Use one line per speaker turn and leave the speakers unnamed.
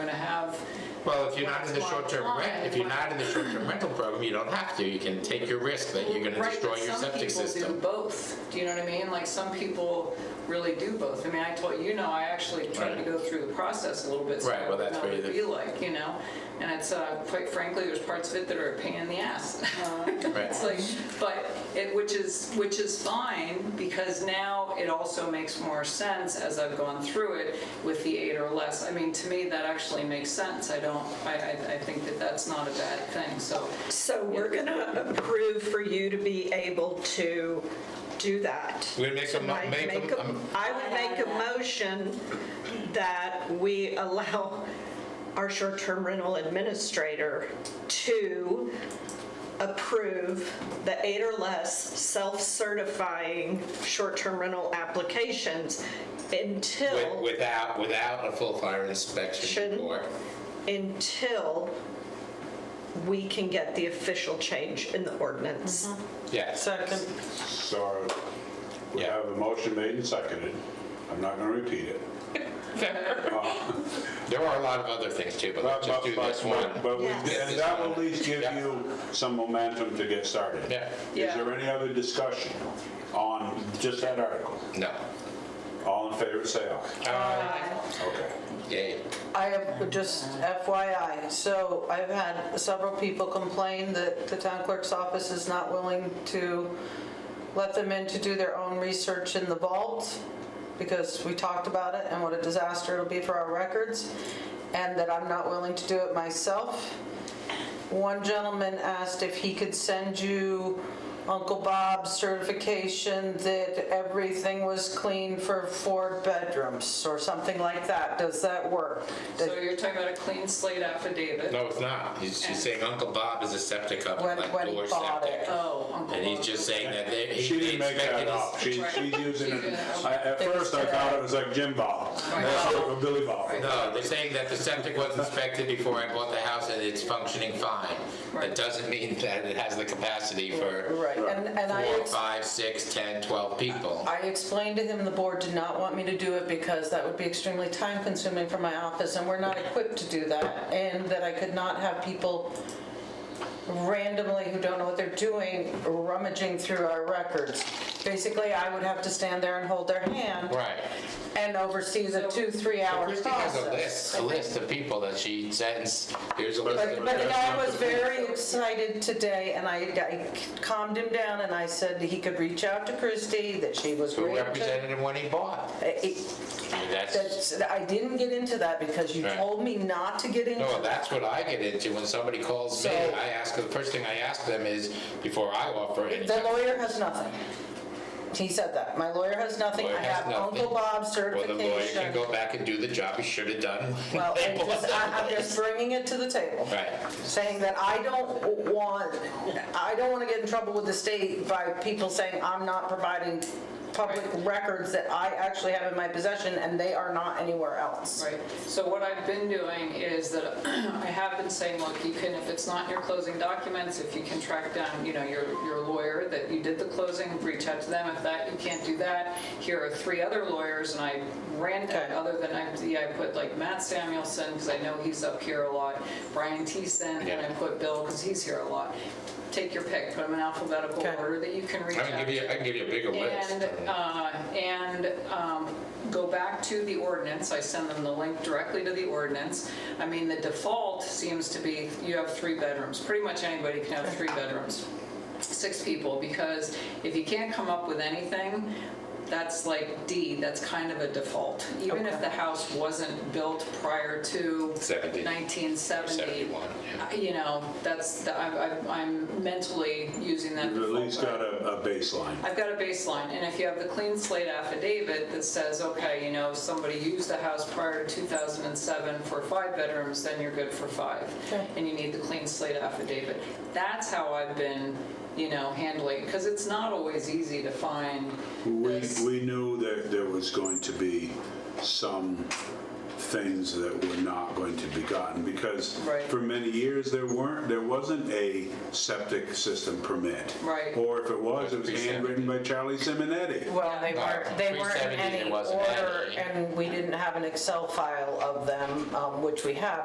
Well, if you're not in the
That's why
short-term rent, if you're not in the short-term rental program, you don't have to. You can take your risk that you're gonna
Right,
destroy
but
your septic
Some people do
system.
both, do you know what I mean? Like, some people really do both. I mean, I told, you know, I actually tried to
Right.
go through the process a little bit. so
Right,
I
well,
would
that's
know
where
what it'd
the-
Be like, you know? And it's, uh, quite frankly, there's parts of it that are a pain in the ass.
Right.
It's like, but it, which is, which is fine, because now it also makes more sense as I've gone through it with the eight or less. I mean, to me, that actually makes sense. I don't, I, I, I think that that's not a bad thing, so.
So we're going to approve for you to be able to do that.
We make a mo-
So I
make a-
make a-
um,
I would make a motion that we allow our short-term rental administrator to approve the eight or less self-certifying short-term rental applications
With-
until,
Without, without a full fire inspection
Shouldn't.
report.
until we can get the official change in the ordinance.
Yes.
Second.
So we have a motion made and seconded. I'm not going to repeat it.
There are a lot of other things too, but let's just do this
But-
one.
But we,
Yes.
and that will at least give
Yeah.
you some momentum to get started.
Yeah.
Is
Yeah.
there any other discussion on just that article?
No.
All in favor, say aye. Okay.
Yay.
I have just FYI, so I've had several people complain that the town clerk's office is not willing to let them in to do their own research in the vault because we talked about it and what a disaster it'll be for our records and that I'm not willing to do it myself. One gentleman asked if he could send you Uncle Bob's certification that everything was clean for four bedrooms or something like that. Does that work?
So you're talking about a clean slate affidavit?
No, it's not. He's, she's saying Uncle Bob is a septic company,
When-
like
when he
Door
bought it.
Septic.
Oh, Uncle
And he's
Bob.
just saying that they,
She
he
didn't make
inspected
that up.
his.
She, she's using it. I- At
It was
first, I thought it was like Jim Bob, or Billy Bob.
No, they're saying that the septic was inspected before I bought the house and it's functioning fine. That
Right.
doesn't mean that it has the capacity for
Right, and, and I,
four,
ex-
five, six, 10, 12 people.
I explained to him the board did not want me to do it because that would be extremely time consuming for my office and we're not equipped to do that. And that I could not have people randomly who don't know what they're doing rummaging through our records. Basically, I would have to stand there and hold their hand.
Right.
And oversee the two, three hour process.
Christie has a list, a list of people that she sends, here's a list
But
of.
but the guy was very excited today, and I I calmed him down, and I said he could reach out to Christie, that she was
Who
ready to...
represented him when he bought.
It-
I mean, That's,
that's- I didn't get into that because you
Right.
told me not to get into
no,
that.
that's what I get into when somebody calls me.
So-
I ask, the first thing I ask them is, before I offer any.
The lawyer has nothing. He said that. My lawyer has nothing. I
Lawyer has
have Uncle
nothing.
Bob's
Well, the
certification.
lawyer can go back and do the job he should have done. when
Well,
they
I'm
bought
just-
the
I- I'm
place.
just bringing it to the table.
Right.
saying that I don't want, I don't want to get in trouble with the state by people saying I'm not providing public records that I actually have in my possession and they are not anywhere else.
Right, so what I've been doing is that I have been saying, look, you can, if it's not your closing documents, if you can track down, you know, your, your lawyer that you did the closing, reach out to them, if that, you can't do that, here are three other lawyers, and I ran,
Okay.
other than, I, yeah, I put like Matt Samuelson, because I know he's up here a lot, Brian Teeson, and
Yeah.
I put Bill, because he's here a lot. Take your pick, put them in alphabetical
Okay.
order that you can reach
I
out
can give you, I can give you a bigger list.
and, uh, and um, go back to the ordinance, I send them the link directly to the ordinance. I mean, the default seems to be, you have three bedrooms, pretty much anybody can have three bedrooms, six people, because if you can't come up with anything, that's like D, that's kind of a default. Even if the house wasn't built prior to
Seventy.
1970.
71, yeah.
uh, You know, that's, the- I- I- I'm mentally using that
You've at
default.
least got a, a baseline.
I've got a baseline, and if you have the clean slate affidavit that says, okay, you know, somebody used the house prior to 2007 for five bedrooms, then you're good for five. And you need the clean slate affidavit. That's how I've been, you know, handling, because it's not always easy to find
We,
this.
we knew that there was going to be some things that were not going to be gotten because
Right.
for many years, there weren't, there wasn't a septic system permit.
Right.
Or if it was, it was
Pre-seventy.
handwritten by Charlie Simonetti.
Well, they weren't, they weren't in
370,
any
there wasn't
order
any.
and we didn't have an Excel file of them, um, which we have,